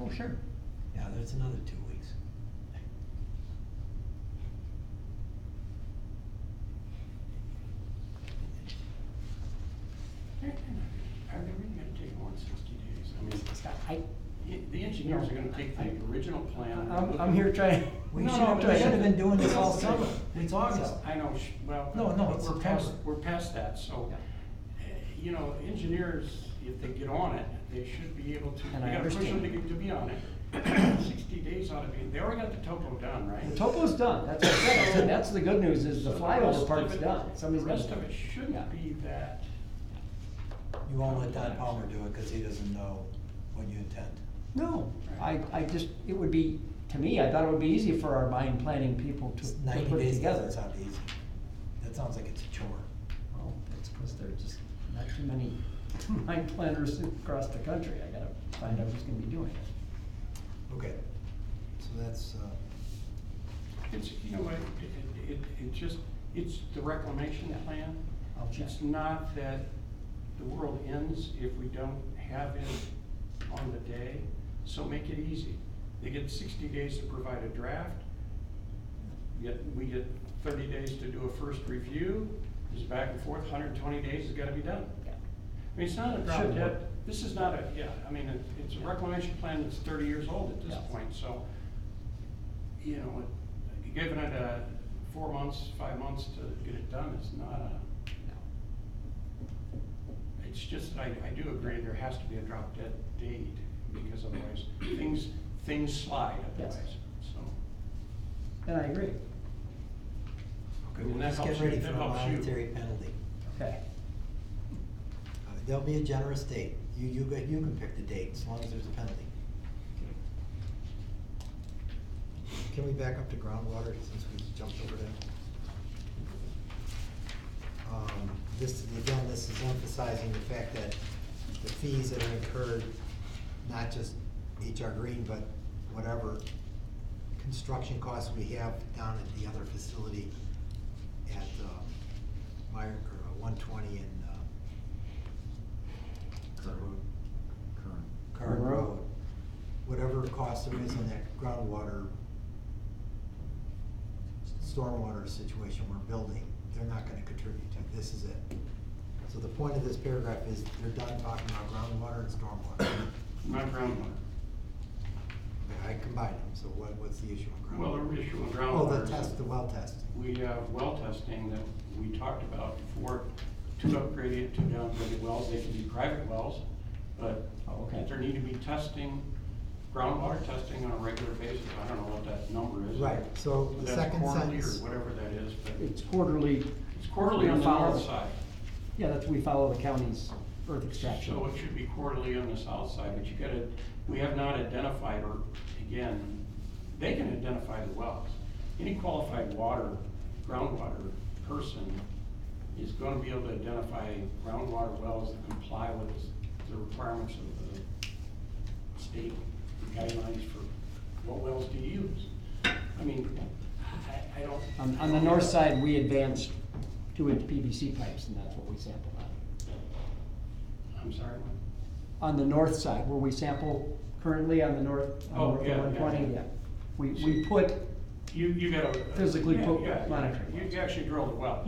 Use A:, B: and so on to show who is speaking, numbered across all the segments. A: Oh, sure.
B: Yeah, that's another two weeks.
C: Are they really gonna take more than sixty days? I mean, I- the engineers are gonna take the original plan. and
A: I'm,
C: look
A: I'm
C: at-
A: here trying.
B: We
C: No,
B: should
C: no,
B: have,
C: but
B: we should have been doing this all
C: it's-
B: summer. It's August.
C: I know, sh- well.
B: No, no,
C: but
B: it's
C: We're past,
B: September.
C: we're past that, so,
A: Yeah.
C: eh, you know, engineers, if they get on it, they should be able to, we
A: And I
C: gotta push them to
A: understand.
C: get, to be on it. Sixty days ought to be, they already got the topo done, right?
A: The topo's done, that's what I said, I said, that's the good news, is the
C: So rest
A: flyover
C: of
A: part's
C: it-
A: done, somebody's
C: The
A: gonna.
C: rest of it
A: Yeah.
C: shouldn't be that,
B: You won't let Todd Palmer do it because he doesn't know what you intend.
A: No, I, I just, it would be, to me, I thought it would be easy for our mine planning people to,
B: It's
A: to
B: Ninety
A: put it
B: days
A: together.
B: doesn't sound easy. That sounds like it's a chore.
A: Well, it's because there's just not too many mine planners across the country, I gotta find out who's gonna be doing it.
B: Okay, so that's, uh,
C: it's, you know, what, it, it, it- it just, it's the reclamation
A: Yeah.
C: plan.
A: I'll check.
C: It's not that the world ends if we don't have it on the day, so make it easy. They get sixty days to provide a draft, we get, we get thirty days to do a first review, It's back and forth, hundred and twenty days has gotta be done. I mean, it's not a drop
A: Should
C: dead,
A: work.
C: this is not a, yeah, I mean, it- it's a reclamation plan that's thirty years old at this
A: Yeah.
C: point, so, you know, it- giving it a four months, five months to get it done is not a,
A: No.
C: it's just, I, I do agree, there has to be a drop dead date, because otherwise, things, things slide
A: Yes.
C: otherwise, so.
A: And I agree,
B: okay,
C: And
B: we'll
C: that
B: just get
C: helps you-
B: ready
C: that
B: for a
C: helps you.
B: monetary penalty.
A: okay,
B: Uh, There'll be a generous date. You, you, go- you can pick the date as long as there's a penalty. Can we back up to groundwater since we jumped over that? Um, This, again, this is emphasizing the fact that the fees that are incurred, not just HR Green, but whatever construction costs we have down at the other facility at, um, Meyer, or uh, one twenty and, um,
D: Current road. Current.
B: Current
A: Road.
B: Road. Whatever cost there is on that groundwater, stormwater situation we're building, they're not gonna contribute to, this is it. So the point of this paragraph is, they're done talking about groundwater and stormwater.
C: Not groundwater.
B: I combined them, so what, what's the issue on
C: Well,
B: groundwater?
C: the issue with
B: Oh,
C: groundwater
B: the
C: is
B: test, the
C: that
B: well test.
C: we have well testing that we talked about before, two upgraded, two downgraded wells, they can be private wells, but
A: Oh, okay.
C: there need to be testing, groundwater testing on a regular basis, I don't know what that number is.
B: Right, so the
C: That's
B: second
C: quarterly
B: sentence-
C: Or whatever that is, but
A: it's quarterly,
C: it's quarterly on the
A: Follow.
C: north side,
A: yeah, that's, we follow the county's earth extraction.
C: so it should be quarterly on the south side, but you gotta, we have not identified, or again, they can identify the wells. Any qualified water, groundwater person is gonna be able to identify groundwater wells that comply with the requirements of the state guidelines for what wells to use. I mean, I, I don't.
A: On, on the north side, we advanced two-inch PVC pipes, and that's what we sampled on.
C: I'm sorry, what?
A: On the north side, where we sample currently on the north,
C: Oh,
A: on
C: yeah,
A: Route
C: yeah,
A: one twenty,
C: yeah.
A: yeah. We, we put,
C: You, you gotta.
A: Physically Mm-hmm.
C: Yeah,
A: put
C: yeah,
A: monitoring
C: You
A: wells.
C: you actually drilled a well.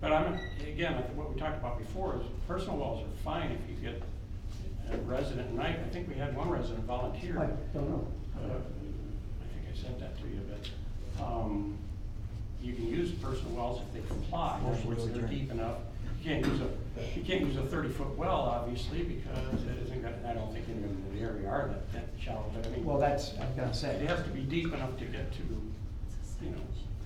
C: But I'm, again, like what we talked about before is personal wells are fine if you get a resident, and I, I think we had one resident volunteer.
A: I
C: Uh,
A: don't know.
C: I think I sent that to you, but, um, you can use personal wells if they comply, in other
B: Motion to
C: words, they're
B: adjourn.
C: deep enough. You can't use a, you can't use a thirty-foot well, obviously, because it isn't gonna, I don't think any of them in the area are that, that shallow, but I mean.
A: Well, that's, I was gonna
C: It
A: say,
C: has to be deep enough to get to, you know.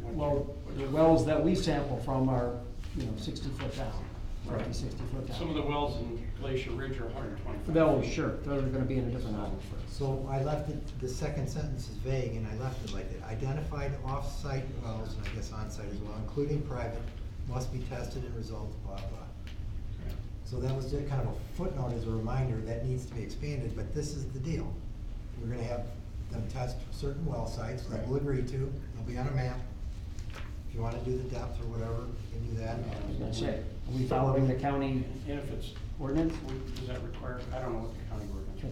C: what you-
A: well,
C: what
A: the
C: you-
A: wells that we sample from are, you know, sixty foot down, fifty,
C: Right.
A: sixty foot down.
C: Some of the wells in Glacier Ridge are 125.
A: Those, sure, those are gonna be in a different aisle first.
B: So I left it, the second sentence is vague, and I left it like that. Identified off-site wells, and I guess on-site as well, including private, must be tested and results, blah, blah. So that was just kind of a footnote as a reminder, that needs to be expanded, but this is the deal. We're gonna have them test certain well sites, that we'll agree to, they'll be on a map. If you wanna do the depth or whatever, you can do that.
A: I was gonna say, are we following the county
C: And if it's,
A: ordinance?
C: we- does that require, I don't know what the county word